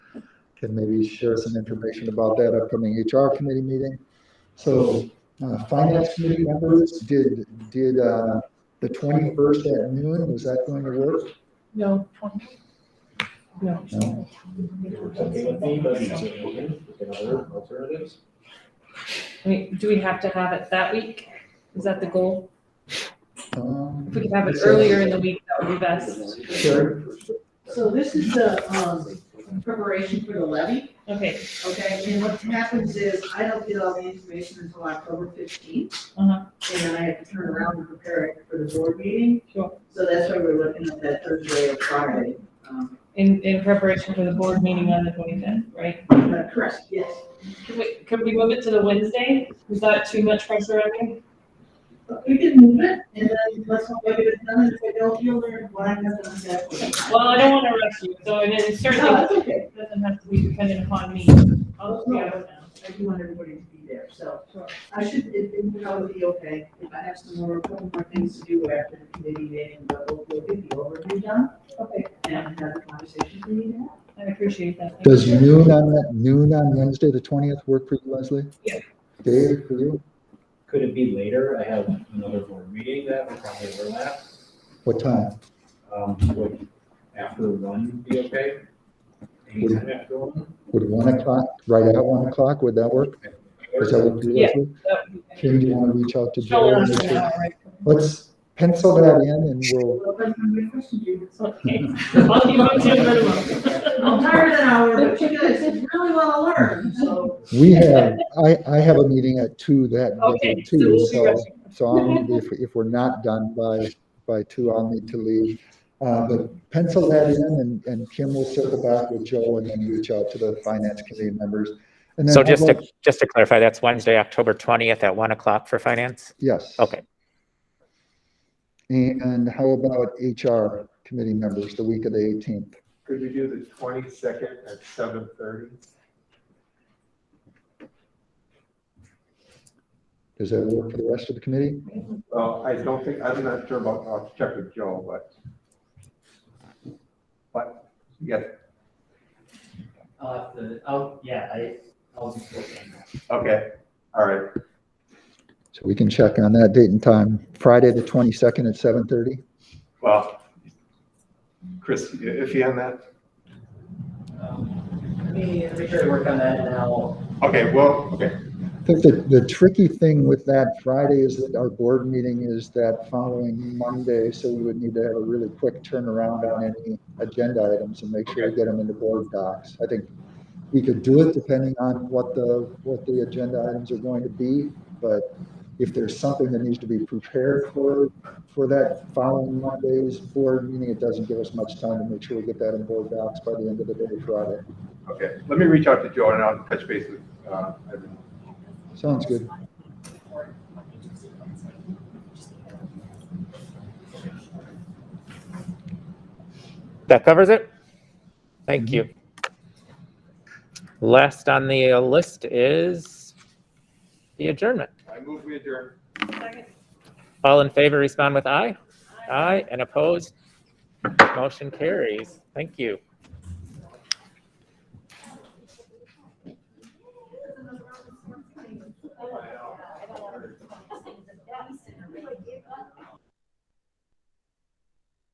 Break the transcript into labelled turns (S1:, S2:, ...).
S1: can maybe share some information about that upcoming HR committee meeting. So, uh, finance committee members, did, did, uh, the twenty-first at noon, was that going to work?
S2: No. No.
S1: No?
S3: Okay, with me, but it's open, we can other alternatives.
S2: I mean, do we have to have it that week? Is that the goal?
S1: Um,
S2: If we could have it
S1: so-
S2: earlier in the week, that would be best.
S1: Sure.
S4: So this is the, um, preparation for the levy,
S2: Okay,
S4: okay, and what happens is, I don't get all the information until October fifteenth.
S2: Uh-huh.
S4: And then I have to turn around and prepare it for the board meeting.
S2: Sure.
S4: So that's why we're looking at that Thursday or Friday, um,
S2: in, in preparation for the board meeting on the twenty-fifth, right?
S4: but correct, yes.
S2: Could we, could we move it to the Wednesday? Is that too much pressure on you?
S4: But We can move it, and then let's hope I get it done, and if I don't, you'll learn what I'm gonna have to.
S2: Well, I don't want to rush you, so and it
S4: No,
S2: certainly
S4: that's okay,
S2: doesn't have to be dependent upon me. I'll just be out now.
S4: I do want everybody to be there, so
S2: Sure.
S4: I should, it, it would probably be okay, if I have some more, a couple more things to do after the committee meeting, but we'll, we'll get the overview done.
S2: Okay,
S4: and have the conversations we need to have.
S2: I appreciate that. Thank
S1: Does
S2: you.
S1: noon on that, noon on Wednesday, the twentieth, work for you, Leslie?
S2: Yeah.
S1: Dave, for you?
S3: Could it be later? I have another board meeting that will probably overlap.
S1: What time?
S3: Um, would after one be okay? Anytime after one?
S1: Would one o'clock, right at one o'clock, would that work? Is that what you,
S2: Yeah.
S1: Leslie?
S2: That would be better.
S1: Kim, do you want to reach out to
S2: Don't
S1: Joe? and
S2: rush
S1: make
S2: it
S1: sure-
S2: out, right?
S1: Let's pencil that in and we'll,
S4: Well, but my question to you is,
S2: Okay, I'll be on to minimum.
S4: I'm tired an hour, but you guys really want to learn, so.
S1: we have, I, I have a meeting at two that,
S2: Okay,
S1: day
S2: so
S1: too,
S2: we'll be
S1: so,
S2: rushing.
S1: so I'll, need- if, if we're not done by, by two, I'll need to leave. Uh, but pencil that in and, and Kim will circle back with Joe and then reach out to the finance committee members. And then
S5: So
S1: how
S5: just
S1: about-
S5: to, just to clarify, that's Wednesday, October 20th at 1 o'clock for finance?
S1: Yes.
S5: Okay,
S1: And how about HR committee members, the week of the eighteenth?
S6: Could we do the twenty-second at seven thirty?
S1: Does that work for the rest of the committee?
S6: Well, I don't think, I'm not sure about, I'll check with Joe, but. But, yes,
S7: I'll have to, oh, yeah, I, I'll be working on
S6: okay, all right.
S1: So we can check on that date and time, Friday the twenty-second at seven thirty?
S6: Well, Chris, you iffy on that?
S7: that. Um, Let me, let me try to work on that and I'll,
S6: Okay, well, okay,
S1: I think the, the tricky thing with that Friday is that our board meeting is that following Monday, so we would need to have a really quick turnaround on any agenda items and make sure we get them into board docs. I think we could do it depending on what the, what the agenda items are going to be, but if there's something that needs to be prepared for, for that following Monday's board meeting, it doesn't give us much time to make sure we get that in board docs by the end of the day Friday.
S6: okay. Let me reach out to Joe and I'll touch base with, uh, everyone.
S1: Sounds good.
S5: that covers it? Thank you. Last on the uh, list is the adjournment.
S6: I move we adjourn.
S5: All in favor, respond with aye. Aye, and opposed? Motion carries. Thank you.